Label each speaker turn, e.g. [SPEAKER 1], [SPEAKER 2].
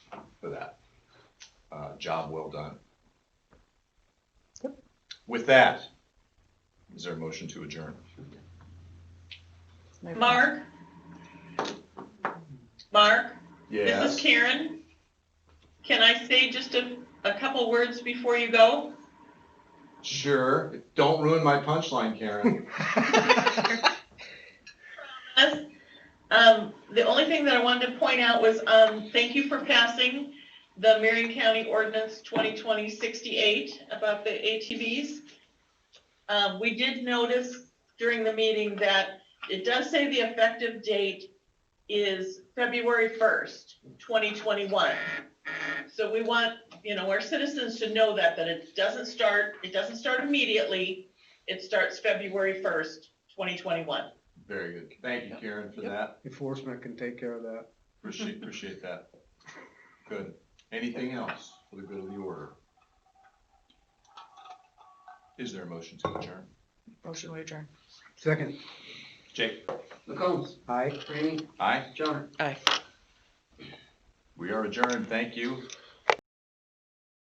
[SPEAKER 1] Uh, job well done. With that, is there a motion to adjourn?
[SPEAKER 2] Mark? Mark? This is
[SPEAKER 1] Yes.
[SPEAKER 2] Karen. Can I say just a, a couple words before you go?
[SPEAKER 1] Sure. Don't ruin my punchline, Karen.
[SPEAKER 2] Yes. Um, the only thing that I wanted to point out was, um, thank you for passing the Marion County Ordinance 2020-68 about the ATVs. Um, we did notice during the meeting that it does say the effective date is February 1st, 2021. So we want, you know, our citizens to know that, that it doesn't start, it doesn't start immediately. It starts February 1st, 2021.
[SPEAKER 1] Very good. Thank you, Karen, for
[SPEAKER 3] Yep.
[SPEAKER 1] that.
[SPEAKER 3] Enforcement can take care of that.
[SPEAKER 1] Appreciate, appreciate that. Good. Anything else for the good of the order? Is there a motion to adjourn?
[SPEAKER 4] Motion to adjourn.
[SPEAKER 3] Second,
[SPEAKER 1] Jake?
[SPEAKER 5] McCombs,
[SPEAKER 3] aye.
[SPEAKER 5] Ramey,
[SPEAKER 1] Aye.
[SPEAKER 5] Johnner.
[SPEAKER 4] Aye.
[SPEAKER 1] We are adjourned. Thank you.